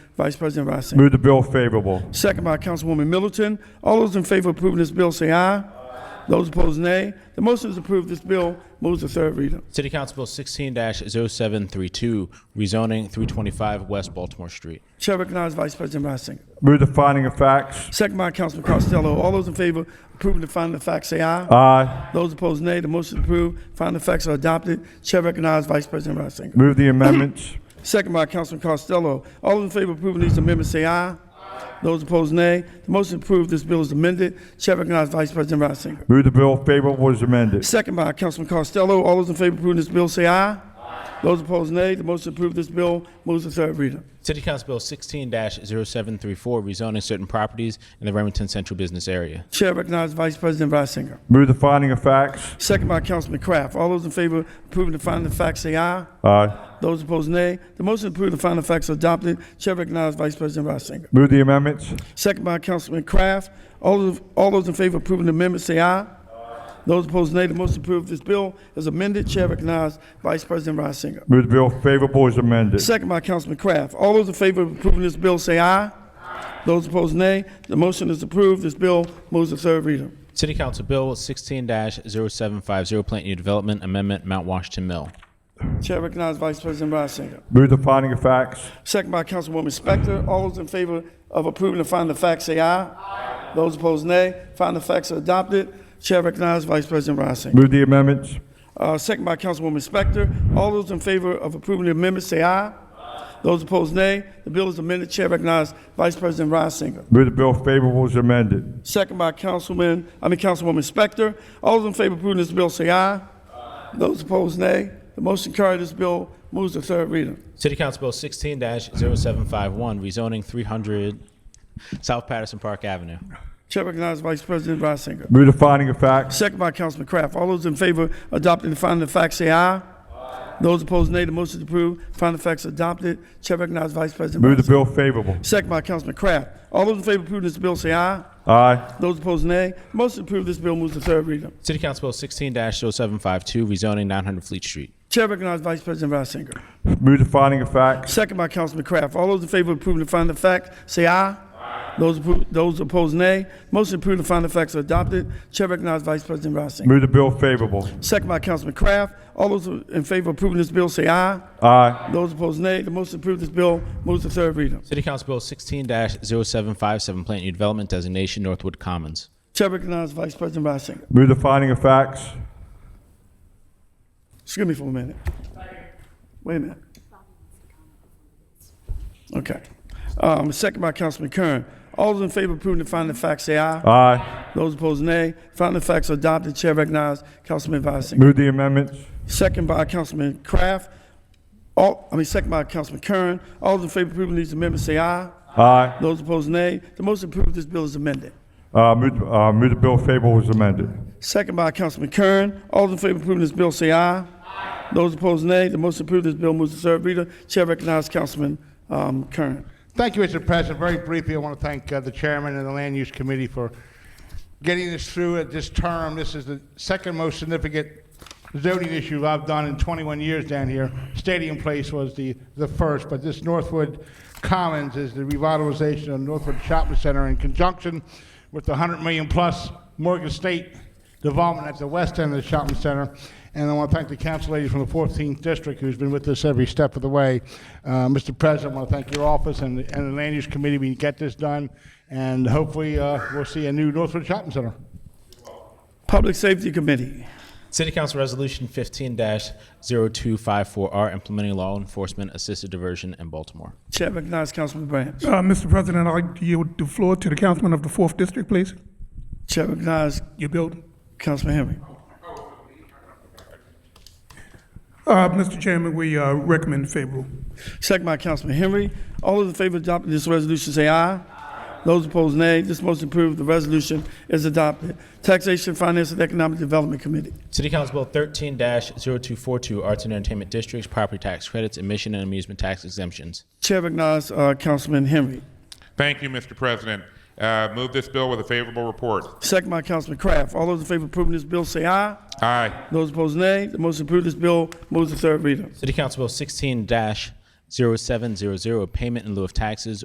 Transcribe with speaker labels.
Speaker 1: Vice President Rossi.
Speaker 2: Move the bill favorable.
Speaker 1: Second by Councilwoman Middleton. All those in favor of approving this bill say aye. Those opposed, nay. The motion is approved. This bill moves to third reader.
Speaker 3: City Council Bill oh 16 0732, rezoning 325 West Baltimore Street.
Speaker 1: Chair recognizes Vice President Reisinger.
Speaker 2: Move the finding of facts.
Speaker 1: Second by Councilman Costello. All those in favor of approving the finding of facts say aye.
Speaker 2: Aye.
Speaker 1: Those opposed, nay. The motion is approved. Finding of facts are adopted. Chair recognizes Vice President Reisinger.
Speaker 2: Move the amendments.
Speaker 1: Second by Councilman Costello. All those in favor of approving these amendments say aye. Those opposed, nay. The motion is approved. This bill is amended. Chair recognizes Vice President Reisinger.
Speaker 2: Move the bill favorable as amended.
Speaker 1: Second by Councilman Costello. All those in favor of approving this bill say aye. Those opposed, nay. The motion to approve this bill moves to third reader.
Speaker 3: City Council Bill oh 16 0734, rezoning certain properties in the Remington Central Business Area.
Speaker 1: Chair recognizes Vice President Reisinger.
Speaker 2: Move the finding of facts.
Speaker 1: Second by Councilman Kraft. All those in favor of approving the finding of facts say aye.
Speaker 2: Aye.
Speaker 1: Those opposed, nay. The motion to approve the finding of facts are adopted. Chair recognizes Vice President Reisinger.
Speaker 2: Move the amendments.
Speaker 1: Second by Councilman Kraft. All those, all those in favor of approving the amendment say aye. Those opposed, nay. The motion to approve this bill is amended. Chair recognizes Vice President Reisinger.
Speaker 2: Move the bill favorable as amended.
Speaker 1: Second by Councilman Kraft. All those in favor of approving this bill say aye. Those opposed, nay. The motion is approved. This bill moves to third reader.
Speaker 3: City Council Bill oh 16 0750, Plant New Development Amendment, Mount Washington Mill.
Speaker 1: Chair recognizes Vice President Reisinger.
Speaker 2: Move the finding of facts.
Speaker 1: Second by Councilwoman Spector. All those in favor of approving the finding of facts say aye. Those opposed, nay. Finding of facts are adopted. Chair recognizes Vice President Reisinger.
Speaker 2: Move the amendments.
Speaker 1: Uh, second by Councilwoman Spector. All those in favor of approving the amendment say aye. Those opposed, nay. The bill is amended. Chair recognizes Vice President Reisinger.
Speaker 2: Move the bill favorable as amended.
Speaker 1: Second by Councilman, I mean Councilwoman Spector. All those in favor of approving this bill say aye. Those opposed, nay. The motion carried. This bill moves to third reader.
Speaker 3: City Council Bill oh 16 0751, rezoning 300 South Patterson Park Avenue.
Speaker 1: Chair recognizes Vice President Reisinger.
Speaker 2: Move the finding of facts.
Speaker 1: Second by Councilman Kraft. All those in favor of adopting the finding of facts say aye. Those opposed, nay. The motion is approved. Finding of facts adopted. Chair recognizes Vice President
Speaker 2: Move the
Speaker 1: Reisinger.
Speaker 2: bill favorable.
Speaker 1: Second by Councilman Kraft. All those in favor of approving this bill say aye.
Speaker 2: Aye.
Speaker 1: Those opposed, nay. Motion approved. This bill moves to third reader.
Speaker 3: City Council Bill oh 16 0752, rezoning 900 Fleet Street.
Speaker 1: Chair recognizes Vice President Reisinger.
Speaker 2: Move the finding of facts.
Speaker 1: Second by Councilman Kraft. All those in favor of approving the finding of facts, say aye. Those appro- those opposed, nay. Motion approved, the finding of facts are adopted. Chair recognizes Vice President Reisinger.
Speaker 2: Move the bill favorable.
Speaker 1: Second by Councilman Kraft. All those in favor of approving this bill, say aye.
Speaker 2: Aye.
Speaker 1: Those opposed, nay. The motion approved, this bill moves to third reader.
Speaker 3: City Council Bill oh 16 0757, Plant New Development Designation, Northwood Commons.
Speaker 1: Chair recognizes Vice President Reisinger.
Speaker 2: Move the finding of facts.
Speaker 1: Excuse me for a minute. Wait a minute. Okay. Um, Second by Councilman Kern. All those in favor of approving the finding of facts, say aye.
Speaker 2: Aye.
Speaker 1: Those opposed, nay. Finding of facts are adopted. Chair recognizes Councilman Reisinger.
Speaker 2: Move the amendments.
Speaker 1: Second by Councilman Kraft. All, I mean, second by Councilman Kern. All those in favor of approving these amendments say aye.
Speaker 2: Aye.
Speaker 1: Those opposed, nay. The motion to approve this bill is amended.
Speaker 2: Uh, move, uh, move the bill favorable as amended.
Speaker 1: Second by Councilman Kern. All those in favor of approving this bill say aye. Those opposed, nay. The motion to approve this bill moves to third reader. Chair recognizes Councilman um, Kern.
Speaker 4: Thank you, Mr. President. Very briefly, I want to thank uh, the chairman and the land use committee for getting this through at this term. This is the second most significant zoning issue I've done in 21 years down here. Stadium Place was the, the first, but this Northwood Commons is the revitalization of Northwood Shopping Center in conjunction with the 100 million plus Morgan State development at the west end of the shopping center. And I want to thank the council lady from the 14th district who's been with us every step of the way. Uh, Mr. President, I want to thank your office and, the- and the land use committee. We can get this done, and hopefully uh, we'll see a new Northwood Shopping Center.
Speaker 1: Public Safety Committee.
Speaker 3: City Council Resolution 15 0254R, implementing law enforcement assisted diversion in Baltimore.
Speaker 1: Chair recognizes Councilman Branch.
Speaker 5: Uh, Mr. President, I'd like to yield the floor to the councilman of the fourth district, please.
Speaker 1: Chair recognizes
Speaker 5: Your building.
Speaker 1: Councilman Henry.
Speaker 5: Uh, Mr. Chairman, we, uh, recommend favorable.
Speaker 1: Second by Councilman Henry. All those in favor of adopting this resolution say aye. Those opposed, nay. This motion approved. The resolution is adopted. Taxation, Finance, and Economic Development Committee.
Speaker 3: City Council Bill 13 0242, Arts and Entertainment Districts, Property Tax Credits, Admission and Amusement Tax Exemptions.
Speaker 1: Chair recognizes uh, Councilman Henry.
Speaker 6: Thank you, Mr. President. Uh, Move this bill with a favorable report.
Speaker 1: Second by Councilman Kraft. All those in favor of approving this bill say aye.
Speaker 6: Aye.
Speaker 1: Those opposed, nay. The motion approved. This bill moves to third reader.
Speaker 3: City Council Bill 16 0700, Payment in lieu of taxes,